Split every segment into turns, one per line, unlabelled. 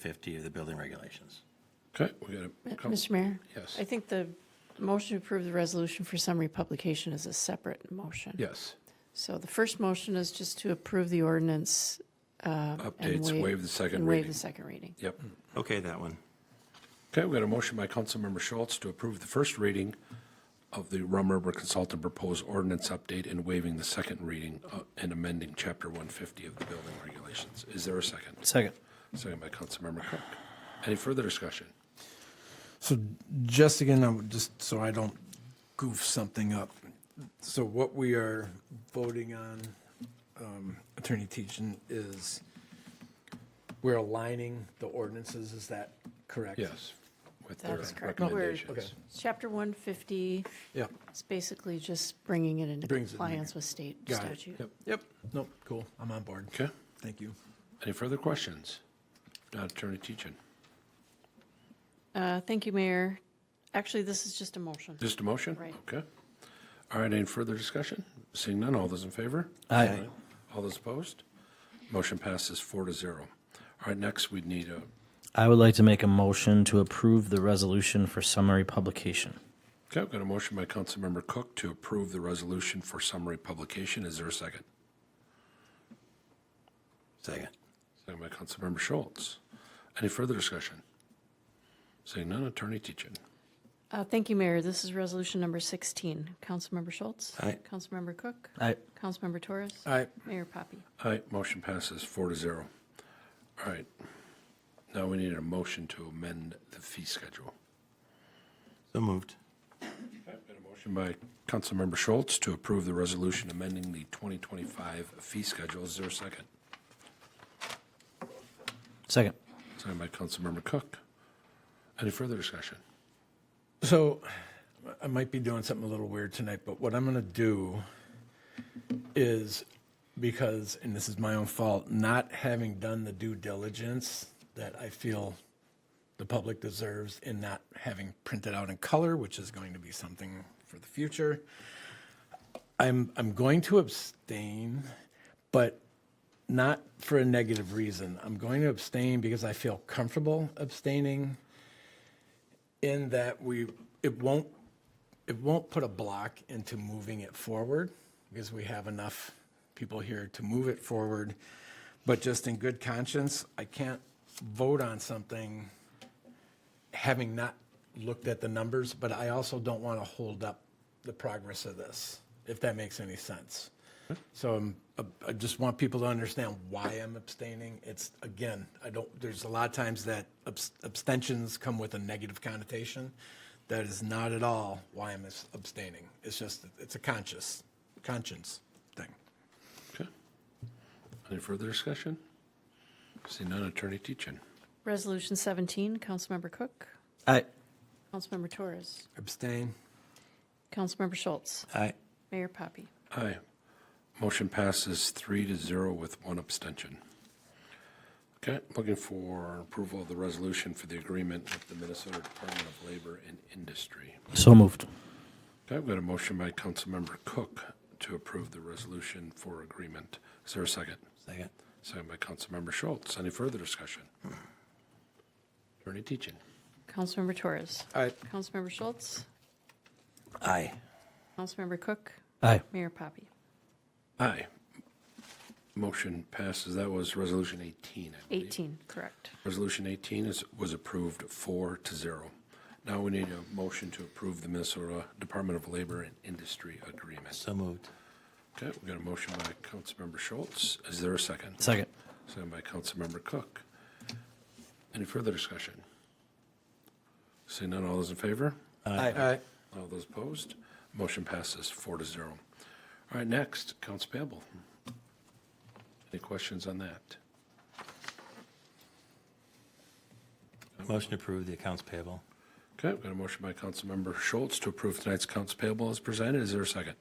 50 of the building regulations.
Okay, we got a couple.
Mr. Mayor?
Yes.
I think the motion to approve the resolution for summary publication is a separate motion.
Yes,
So the first motion is just to approve the ordinance. and
updates, waive the second
and waive
reading.
the second reading.
Yep.
Okay, that one.
Okay, we got a motion by Councilmember Schultz to approve the first reading of the Rum River Consultant proposed ordinance update and waiving the second reading uh, and amending Chapter 150 of the building regulations. Is there a second?
Second.
Second by Councilmember Cook. Any further discussion?
So just again, I'm just so I don't goof something up. So what we are voting on, um, Attorney Teachin, is we're aligning the ordinances, is that correct?
Yes, with their
That's correct. No, we're-
Okay,
recommendations.
Chapter 150
yeah,
is basically just bringing it into
Brings it in there.
compliance with state
Got it.
statute.
Yep.
yep, nope, cool, I'm on board.
Okay,
Thank you.
any further questions? Not Attorney Teachin.
Uh, Thank you, Mayor. Actually, this is just a motion.
Just a motion?
Right.
Okay. All right, any further discussion? Seeing none, all those in favor?
Aye.
All those opposed? Motion passes four to zero. All right, next we'd need a,
I would like to make a motion to approve the resolution for summary publication.
okay, I've got a motion by Councilmember Cook to approve the resolution for summary publication. Is there a second?
Second.
Second by Councilmember Schultz. Any further discussion? Seeing none, Attorney Teachin.
Uh, Thank you, Mayor. This is resolution number 16. Councilmember Schultz?
Aye.
Councilmember Cook?
I,
Councilmember Torres?
Aye.
Mayor Poppy?
Aye, motion passes four to zero. All right. Now we need a motion to amend the fee schedule.
So moved.
Motion by Councilmember Schultz to approve the resolution amending the 2025 fee schedule. Is there a second?
second.
Signed by Councilmember Cook. Any further discussion?
So I might be doing something a little weird tonight, but what I'm going to do is because, and this is my own fault, not having done the due diligence that I feel the public deserves and not having printed out in color, which is going to be something for the future. I'm, I'm going to abstain, but not for a negative reason. I'm going to abstain because I feel comfortable abstaining in that we, it won't, it won't put a block into moving it forward because we have enough people here to move it forward. But just in good conscience, I can't vote on something having not looked at the numbers, but I also don't want to hold up the progress of this, if that makes any sense. So I'm, I just want people to understand why I'm abstaining. It's, again, I don't, there's a lot of times that abs- abstentions come with a negative connotation. That is not at all why I'm abs- abstaining. It's just, it's a conscious, conscience thing.
Okay. Any further discussion? See none, Attorney Teachin.
Resolution 17, Councilmember Cook?
I,
Councilmember Torres?
Abstain?
Councilmember Schultz?
Aye.
Mayor Poppy?
Aye. Motion passes three to zero with one abstention. Okay, looking for approval of the resolution for the agreement with the Minnesota Department of Labor and Industry.
so moved.
Okay, I've got a motion by Councilmember Cook to approve the resolution for agreement. Is there a second?
Second.
Second by Councilmember Schultz. Any further discussion? Attorney Teachin.
Councilmember Torres?
Aye.
Councilmember Schultz?
Aye.
Councilmember Cook?
I,
Mayor Poppy?
Aye. Motion passes. That was Resolution 18, I believe.
18, correct.
Resolution 18 is, was approved four to zero. Now we need a motion to approve the Minnesota Department of Labor and Industry Agreement.
So moved.
Okay, we got a motion by Councilmember Schultz. Is there a second?
second.
Second by Councilmember Cook. Any further discussion? Seeing none, all those in favor?
Aye.
All those opposed? Motion passes four to zero. All right, next, accounts payable. Any questions on that?
Motion to approve the accounts payable.
Okay, we've got a motion by Councilmember Schultz to approve tonight's accounts payable as presented. Is there a second?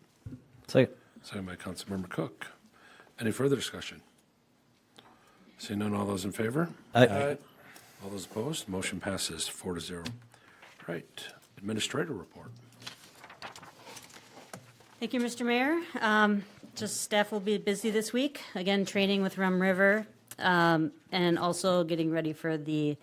Second.
Second by Councilmember Cook. Any further discussion? Seeing none, all those in favor?
I,
All those opposed, motion passes four to zero. All right, administrator report.
Thank you, Mr. Mayor. Um, Just staff will be busy this week, again, training with Rum River, um, and also getting ready for the